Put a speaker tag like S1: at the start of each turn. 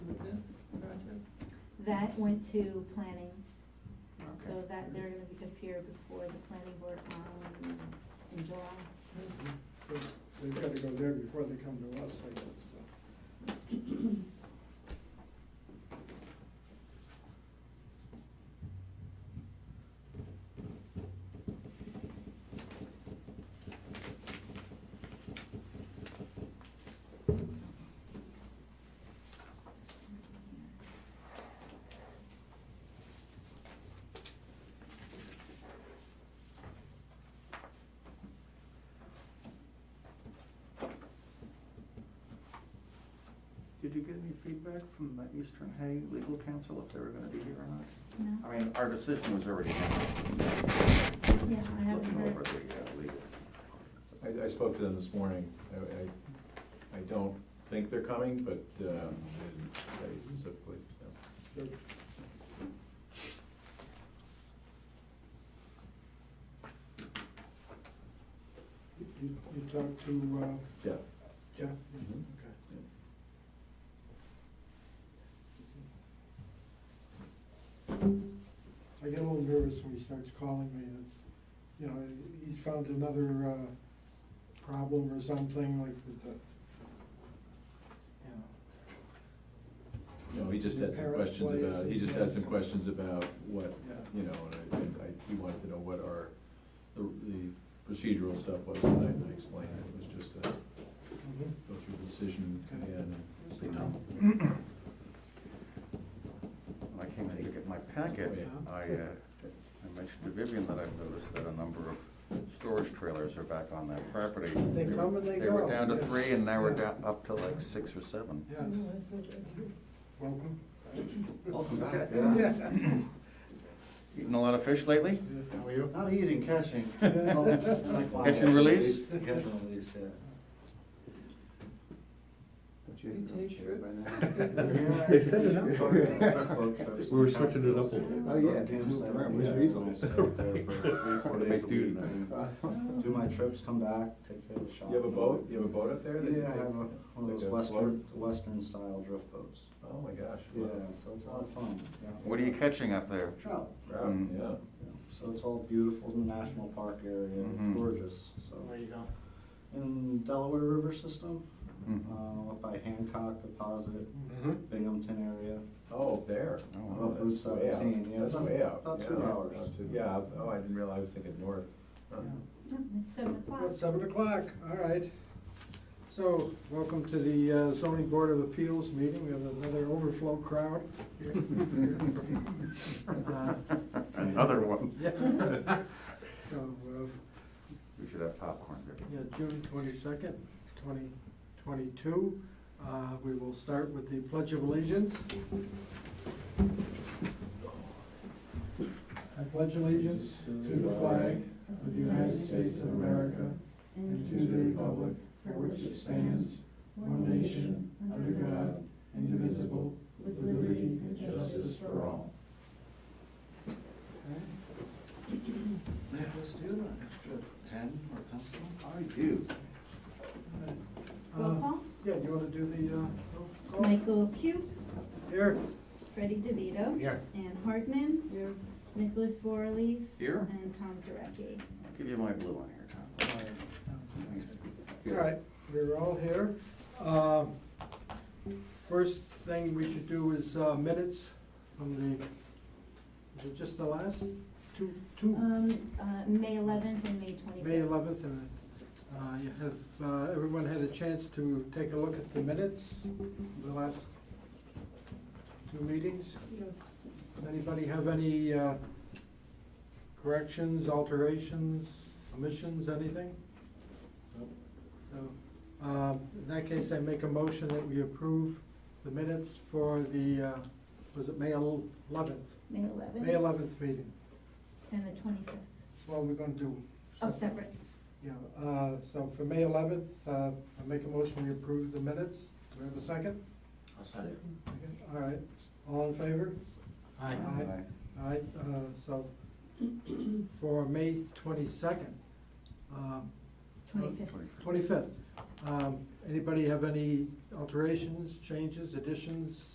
S1: that went to planning,
S2: Okay.
S1: so that they're gonna be appear before the planning board on, in July.
S3: So They've got to go there before they come to us, I guess, so.
S2: Did you get any feedback from the Eastern Hay legal counsel if they were gonna be here or not?
S1: No?
S2: I mean, our decision was already made.
S1: Yeah, I haven't
S2: Looking over
S1: heard.
S2: the, uh, legal.
S4: I, I spoke to them this morning. I, I, I don't think they're coming, but, um, they didn't say specifically, so.
S3: Good. You, you you talked to, uh,
S4: Yeah.
S3: Jeff?
S4: Mhm.
S3: Okay. I get a little nervous when he starts calling me, it's, you know, he's found another, uh, problem or something like with the, you know.
S4: No, he just had some
S3: Parents'
S4: questions
S3: place
S4: about, he just had some questions about what,
S3: Yeah.
S4: you know, and I, and I, he wanted to know what our, the, the procedural stuff was, and I- and I explained it was just to
S3: Mhm.
S4: go through the decision again. and
S5: Mm-hmm.
S4: say no.
S5: When I came in to get my packet,
S3: Oh, Yeah.
S5: I, uh, I mentioned to Vivian that I've noticed that a number of storage trailers are back on that property.
S3: They
S5: were-
S3: come and they
S5: They were
S3: go,
S5: down to
S3: yes.
S5: three and now we're
S3: Yeah.
S5: down, up to like six or seven.
S3: Yes, welcome.
S5: Welcome back.
S3: Yeah.
S5: Eating a lot of fish lately?
S4: How are you?
S5: Not eating, catching.
S3: Catch
S5: and release?
S4: Catch and release, yeah.
S6: They set it
S4: up.
S6: We were switching it up a little.
S1: Oh, yeah,
S4: they
S6: moved around, which
S4: reasons?
S6: Make do.
S7: Do my trips, come back, take care of the shop.
S4: You have a boat, you have a boat up there? that you
S7: Yeah, I
S4: take?
S7: have a- one
S4: Like
S7: of
S4: a
S7: those western,
S4: float?
S7: western style drift boats.
S4: Oh, my gosh.
S7: Yeah, so it's a lot of fun. yeah.
S5: What are you catching up there?
S7: Trout.
S4: Trout,
S5: Mm.
S4: yeah.
S7: yeah. So it's all beautiful in the national park area,
S5: Mhm.
S7: it's gorgeous, so.
S6: Where you going?
S7: In Delaware River System,
S5: Mhm.
S7: uh, up by Hancock Deposit,
S6: Mm-hmm.
S7: Binghamton area.
S4: Oh, up there.
S5: Oh,
S4: Oh,
S7: wow.
S4: that's
S7: Route
S4: way out.
S7: 17, yeah,
S4: That's
S7: about-
S4: way out.
S7: about
S4: yeah.
S7: two hours.
S4: Up to- Yeah, up- oh, I didn't realize, I was thinking north. Huh.
S1: No, It's seven o'clock.
S3: Well, seven o'clock, all right. So, welcome to the uh, zoning board of appeals meeting, we have another overflow crowd. here. Uh,
S5: Another one.
S3: Yeah. So, uh,
S5: We should have popcorn there.
S3: yeah, June twenty-second, twenty twenty-two. Uh, we will start with the pledge of allegiance. I pledge allegiance to the flag of the United States of America and to the republic for which it stands, one nation, under God, indivisible, with liberty and justice for all.
S2: Nicholas, do you have an extra pen or pencil? I do.
S1: Roll call,
S3: Yeah, you wanna do the, uh, roll call?
S1: Michael Cube,
S3: Here.
S1: Freddie DeVito.
S2: Here.
S1: Ann Hartman. Nicholas Vorley
S5: Here?
S1: and Tom Zarecki.
S5: I'll give you my blue one here, Tom.
S3: All right, we're all here. Um, First thing we should do is uh, minutes from the, is it just the last two, two,
S1: Um, uh, May eleventh and May twenty-fifth.
S3: May eleventh, and uh, you have, uh, everyone had a chance to take a look at the minutes, the last two meetings? Does anybody have any uh, corrections, alterations, omissions, anything? So, um, in that case, I make a motion that we approve the minutes for the, uh, was it May eleventh?
S1: May eleventh.
S3: May eleventh meeting.
S1: And the twenty-fifth.
S3: Well, we're gonna do.
S1: Oh, separate.
S3: Yeah, uh, so for May eleventh, uh, I make a motion we approve the minutes. Do we have a second?
S6: I'll set it.
S3: All right, all in favor?
S6: Aye.
S3: Aye. All right, uh, so for May twenty-second, um,
S1: Twenty-fifth.
S3: twenty-fifth, um, anybody have any alterations, changes, additions,